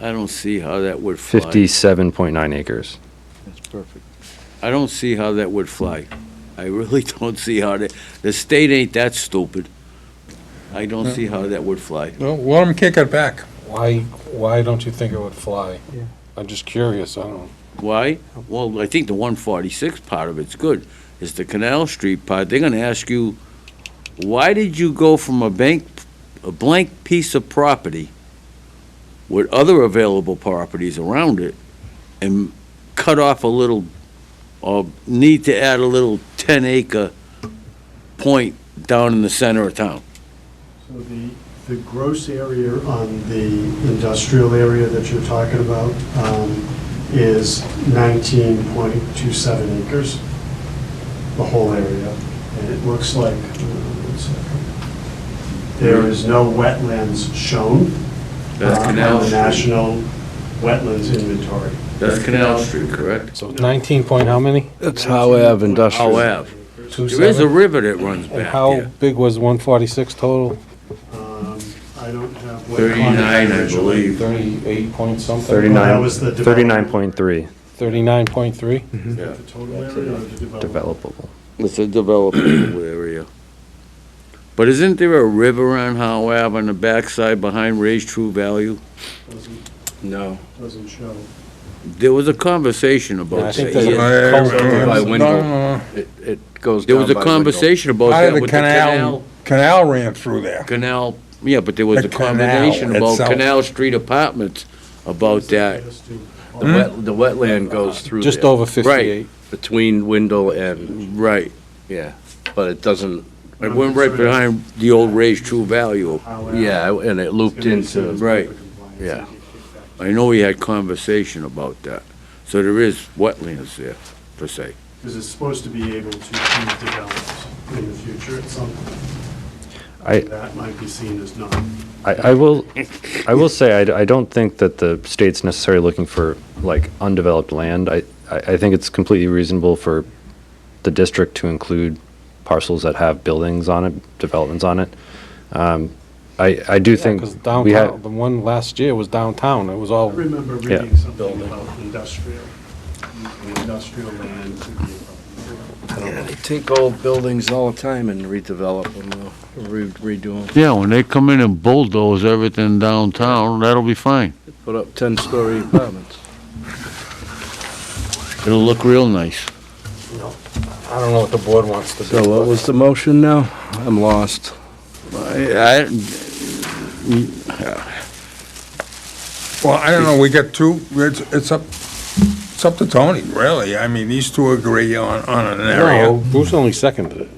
I don't see how that would fly. Fifty-seven point nine acres. That's perfect. I don't see how that would fly. I really don't see how that, the state ain't that stupid. I don't see how that would fly. Well, let them kick it back. Why, why don't you think it would fly? Yeah. I'm just curious, I don't know. Why? Well, I think the one forty-six part of it's good. It's the Canal Street part. They're gonna ask you, why did you go from a bank, a blank piece of property with other available properties around it and cut off a little, or need to add a little ten acre point down in the center of town? So the, the gross area on the industrial area that you're talking about um, is 19.27 acres, the whole area. And it looks like, uh, one second. there is no wetlands shown. That's uh, Canal On the Street. National Wetlands Inventory. That's Canal Street, correct? So 19 point how many? That's how I have industrial. However, Two there is a seven? river that runs And back how there. big was 146 total? Um, I don't have. what 39, I originally- believe. 38 point something? That Thirty-nine, was the thirty-nine point three 39.3? Yeah. The total area or the development? developable. It's a developable area. But isn't there a river on Howe Ave on the backside behind Ray's True Value? Doesn't- No. Doesn't show. There was a conversation Yeah, I about think that. there's a yeah. coastal By area. Windhoek. No, no, no. It, it goes There down was a by Windhoek. conversation about Out that of the with the canal, canal, canal ran through there. canal, yeah, but there was The a conversation canal about itself. Canal Street Apartments about that. The wet, the wetland goes through Just there, over 58. between Windle and, Right. yeah, but it doesn't, It went right behind the old Ray's True Value. However, yeah, and it looped into, Right. yeah. I know we had conversation about that. So there is wetlands there, per se. Because it's supposed to be able to be developed in the future at some point. I- That might be seen as not. I, I will, I will say, I, d- I don't think that the state's necessarily looking for, like, undeveloped land. I, I, I think it's completely reasonable for the district to include parcels that have buildings on it, developments on it. Um, I, I do think Because we downtown, have, the one last year was downtown, it was I all, remember Yeah. reading something about industrial, using industrial land to be. developed. They take old buildings all the time and redevelop them, uh, redo them, Yeah, when they come in and bulldoze everything downtown, that'll be fine. put up 10-story apartments. It'll look real nice. I don't know what the board wants to do. So what was the motion now? I'm lost. I, Well, I don't know, we got two, it's, it's up, it's up to Tony, really. I mean, these two agree on, on an No, area. Bruce only seconded it.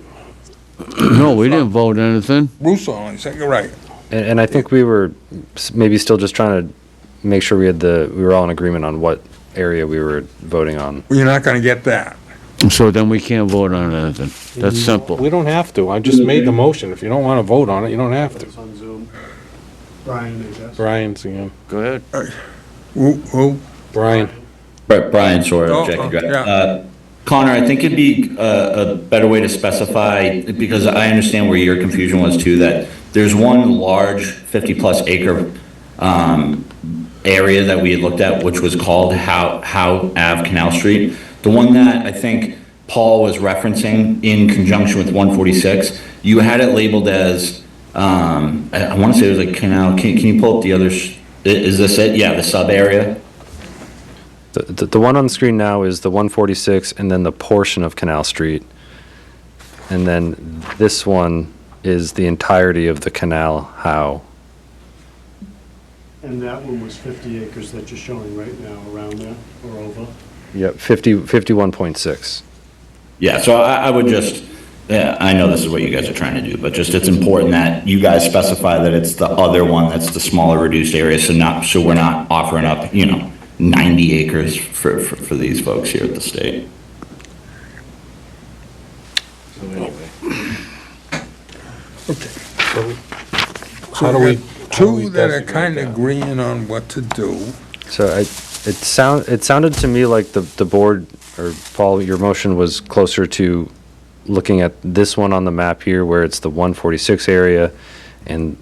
no, we didn't vote anything. Russo only said, you're right. and, and I think we were s- maybe still just trying to make sure we had the, we were all in agreement on what area we were voting on. Well, You're not gonna get that. So then we can't vote on anything. That's We simple. don't have to, I Mm-hmm. just made the motion, if you don't want to vote on it, you don't have It to. was on Zoom. Brian, I guess. Brian's, you know, Go ahead. Who, who? Brian, Bri- Brian Sawyer, Oh, Objective oh, Drive. yeah. Uh, Connor, I think it'd be uh, a better way to specify, because I understand where your confusion was too, that there's one large 50-plus acre um, area that we had looked at, which was called How How Ave Canal Street. The one that I think Paul was referencing in conjunction with 146, you had it labeled as, um, I want to say it was like Canal, can can you pull up the other, s- i- is this it? Yeah, the sub-area? The, the, the one on the screen now is the one forty-six and then the portion of Canal Street. And then this one is the entirety of the canal, how? And that one was 50 acres that you're showing right now around there or over. Yep, 50, 51.6. Yeah, so I, I would just, yeah, I know this is what you guys are trying to do, but just it's important that you guys specify that it's the other one that's the smaller reduced area, so not, so we're not offering up, you know, 90 acres for, for, for these folks here at the state. how do we? how do we Two that are designate kinda that? agreeing on what to do. So I, it sound, it sounded to me like the, the board, or Paul, your motion was closer to looking at this one on the map here where it's the 146 area and